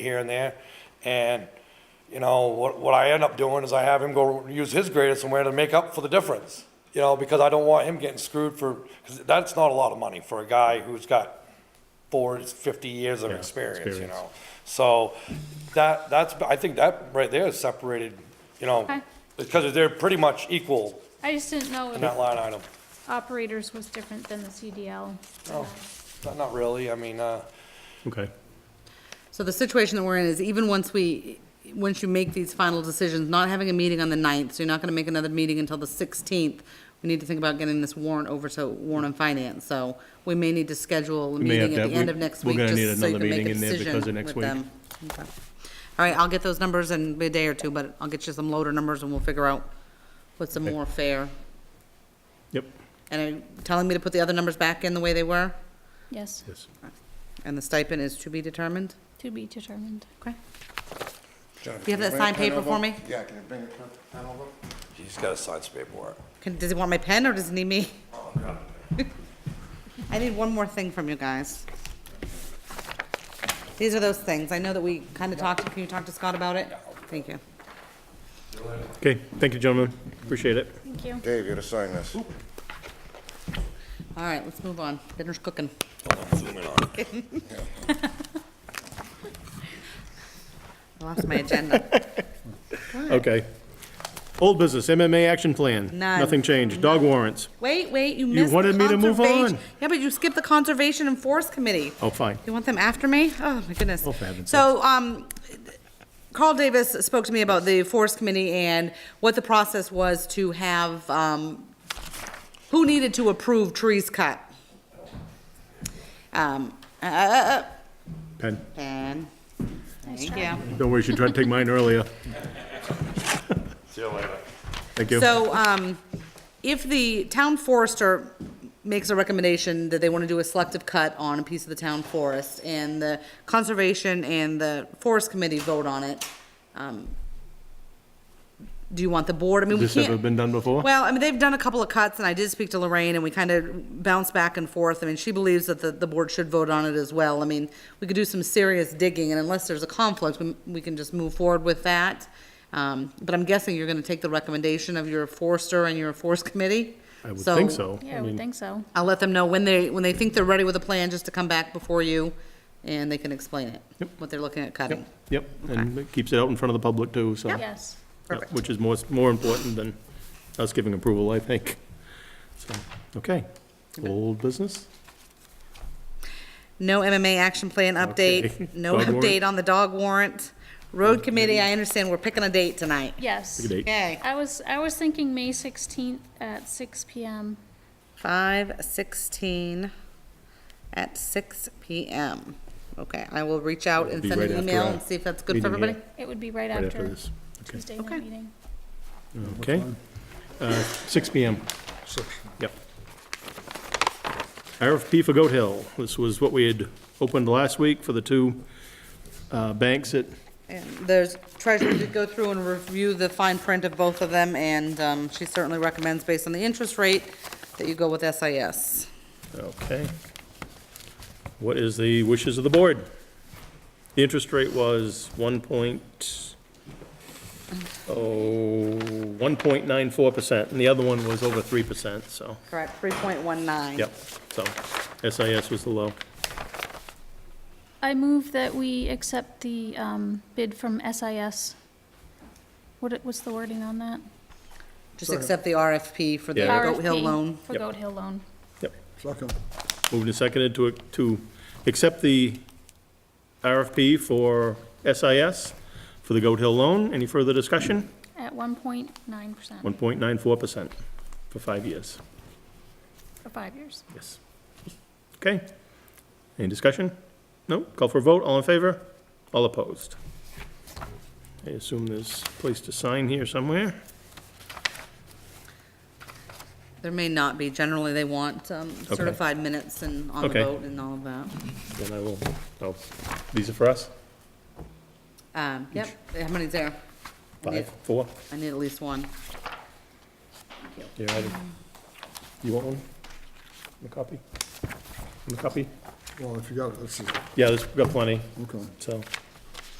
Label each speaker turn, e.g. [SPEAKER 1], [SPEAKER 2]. [SPEAKER 1] here and there. And, you know, what, what I end up doing is I have him go use his grader somewhere to make up for the difference. You know, because I don't want him getting screwed for, because that's not a lot of money for a guy who's got four, fifty years of experience, you
[SPEAKER 2] experience.
[SPEAKER 1] know? So that, that's, I think that right there is separated, you know,
[SPEAKER 3] Okay.
[SPEAKER 1] because they're pretty much equal
[SPEAKER 3] I just didn't know
[SPEAKER 1] in that
[SPEAKER 3] if
[SPEAKER 1] line item.
[SPEAKER 3] operators was different than the CDL.
[SPEAKER 1] No, Oh, not- not really. I mean, uh,
[SPEAKER 2] Okay,
[SPEAKER 4] So the situation that we're in is even once we, once you make these final decisions, not having a meeting on the ninth, so you're not gonna make another meeting until the sixteenth. We need to think about getting this warrant over to warrant and finance, so we may need to schedule a
[SPEAKER 2] may have
[SPEAKER 4] meeting at
[SPEAKER 2] to-
[SPEAKER 4] the end
[SPEAKER 2] we-
[SPEAKER 4] of next
[SPEAKER 2] we're
[SPEAKER 4] week,
[SPEAKER 2] gonna need
[SPEAKER 4] just so you
[SPEAKER 2] another
[SPEAKER 4] can make
[SPEAKER 2] meeting
[SPEAKER 4] a
[SPEAKER 2] in there
[SPEAKER 4] decision
[SPEAKER 2] because of next
[SPEAKER 4] with
[SPEAKER 2] week.
[SPEAKER 4] them. Okay. All right, I'll get those numbers in a day or two, but I'll get you some loader numbers and we'll figure out what's a more fair.
[SPEAKER 2] yep,
[SPEAKER 4] And are you telling me to put the other numbers back in the way they were?
[SPEAKER 3] Yes,
[SPEAKER 2] yes.
[SPEAKER 4] And the stipend is to be determined?
[SPEAKER 3] to be determined.
[SPEAKER 4] Okay.
[SPEAKER 5] Jennifer,
[SPEAKER 4] You have that
[SPEAKER 5] can bring a
[SPEAKER 4] signed
[SPEAKER 5] pen
[SPEAKER 4] paper for
[SPEAKER 5] over?
[SPEAKER 4] me?
[SPEAKER 5] Yeah, can you bring a pen pen over?
[SPEAKER 1] he's gotta sign some paperwork.
[SPEAKER 4] Can, does he want my pen or does he need me? I need one more thing from you guys. These are those things. I know that we kind of talked, can you talk to Scott about it? Thank you.
[SPEAKER 2] Okay, thank you, gentlemen, appreciate it.
[SPEAKER 3] Thank you.
[SPEAKER 5] Dave, you gotta sign this.
[SPEAKER 4] All right, let's move on. Dinner's cooking.
[SPEAKER 1] Zoom in on it.
[SPEAKER 4] I lost my agenda.
[SPEAKER 2] Okay. Old business, MMA action plan.
[SPEAKER 4] None.
[SPEAKER 2] Nothing changed, dog warrants.
[SPEAKER 4] Wait, wait, you missed. the
[SPEAKER 2] wanted me to move
[SPEAKER 4] conservation-
[SPEAKER 2] on.
[SPEAKER 4] Yeah, but you skipped the Conservation and Forest Committee.
[SPEAKER 2] Oh, fine.
[SPEAKER 4] You want them after me? Oh, my goodness.
[SPEAKER 2] Oh, for heaven's
[SPEAKER 4] So, um, Carl Davis spoke to me about the Forest Committee and what the process was to have, um, who needed to approve trees cut. Um, uh, uh,
[SPEAKER 2] Pen,
[SPEAKER 4] uh, and, thank you.
[SPEAKER 2] don't worry, she tried to take mine earlier.
[SPEAKER 1] See you later.
[SPEAKER 2] Thank you.
[SPEAKER 4] So, um, if the town forester makes a recommendation that they want to do a selective cut on a piece of the town forest, and the conservation and the forest committee vote on it, um, do you want the board, I mean, we
[SPEAKER 2] This
[SPEAKER 4] can't.
[SPEAKER 2] ever been done before?
[SPEAKER 4] Well, I mean, they've done a couple of cuts, and I did speak to Lorraine, and we kind of bounced back and forth. I mean, she believes that the, the board should vote on it as well. I mean, we could do some serious digging, and unless there's a conflict, we, we can just move forward with that. Um, but I'm guessing you're gonna take the recommendation of your forester and your forest committee?
[SPEAKER 2] I would think so.
[SPEAKER 3] Yeah, I would think so.
[SPEAKER 4] I'll let them know when they, when they think they're ready with a plan, just to come back before you, and they can explain it,
[SPEAKER 2] Yep.
[SPEAKER 4] what they're looking at cutting.
[SPEAKER 2] Yep, and it keeps it out in front of the public too, so. yeah,
[SPEAKER 3] Yes.
[SPEAKER 4] Perfect.
[SPEAKER 2] Which is more, more important than us giving approval, I think. So, okay, old business?
[SPEAKER 4] No MMA action plan
[SPEAKER 2] Okay.
[SPEAKER 4] update, no
[SPEAKER 2] Dog warrant.
[SPEAKER 4] update on the dog warrant. Road committee, I understand we're picking a date tonight.
[SPEAKER 3] Yes.
[SPEAKER 2] Good date.
[SPEAKER 4] Okay,
[SPEAKER 3] I was, I was thinking May sixteenth at six PM.
[SPEAKER 4] five sixteen at six PM. Okay, I will reach out and
[SPEAKER 2] Be
[SPEAKER 4] send
[SPEAKER 2] right
[SPEAKER 4] an
[SPEAKER 2] after
[SPEAKER 4] email
[SPEAKER 2] our
[SPEAKER 4] and see if that's good for
[SPEAKER 2] meeting here.
[SPEAKER 4] everybody.
[SPEAKER 3] It would be right
[SPEAKER 2] Right after
[SPEAKER 3] after
[SPEAKER 2] this. Okay,
[SPEAKER 3] Tuesday night
[SPEAKER 4] Okay.
[SPEAKER 3] meeting.
[SPEAKER 2] okay. Uh, six P M. Yep. RFP for Goat Hill. This was what we had opened last week for the two uh, banks at,
[SPEAKER 4] And there's, treasurer did go through and review the fine print of both of them, and, um, she certainly recommends based on the interest rate that you go with SIS.
[SPEAKER 2] okay. What is the wishes of the board? The interest rate was one point, oh, 1.94%, and the other one was over 3%, so,
[SPEAKER 4] Correct, three point one nine.
[SPEAKER 2] yep. So SIS was the low.
[SPEAKER 3] I move that we accept the, um, bid from SIS. What, it- what's the wording on that?
[SPEAKER 4] Just accept the RFP for the
[SPEAKER 2] Yeah.
[SPEAKER 4] Goat Hill
[SPEAKER 3] RFP
[SPEAKER 4] loan.
[SPEAKER 3] For
[SPEAKER 2] Yep.
[SPEAKER 3] Goat Hill loan.
[SPEAKER 2] Yep.
[SPEAKER 5] Second.
[SPEAKER 2] Moved and seconded to, to accept the RFP for SIS for the Goat Hill loan. Any further discussion?
[SPEAKER 3] At one point nine percent
[SPEAKER 2] 1.94% for five years.
[SPEAKER 3] for five years.
[SPEAKER 2] Yes. Okay. Any discussion? No? Call for a vote. All in favor? All opposed? I assume there's a place to sign here somewhere.
[SPEAKER 4] There may not be. Generally, they want um,
[SPEAKER 2] Okay.
[SPEAKER 4] certified minutes and on the
[SPEAKER 2] Okay.
[SPEAKER 4] vote and all of that.
[SPEAKER 2] Then I will, oh, these are for us?
[SPEAKER 4] Um, Yep, how many's there? I need-
[SPEAKER 2] Five, four?
[SPEAKER 4] I need at least one.
[SPEAKER 2] Yeah, I do. You want one? A copy? A copy?
[SPEAKER 5] Well, if you got it, let's see.
[SPEAKER 2] Yeah, there's, we've got plenty,
[SPEAKER 5] Okay.
[SPEAKER 2] so.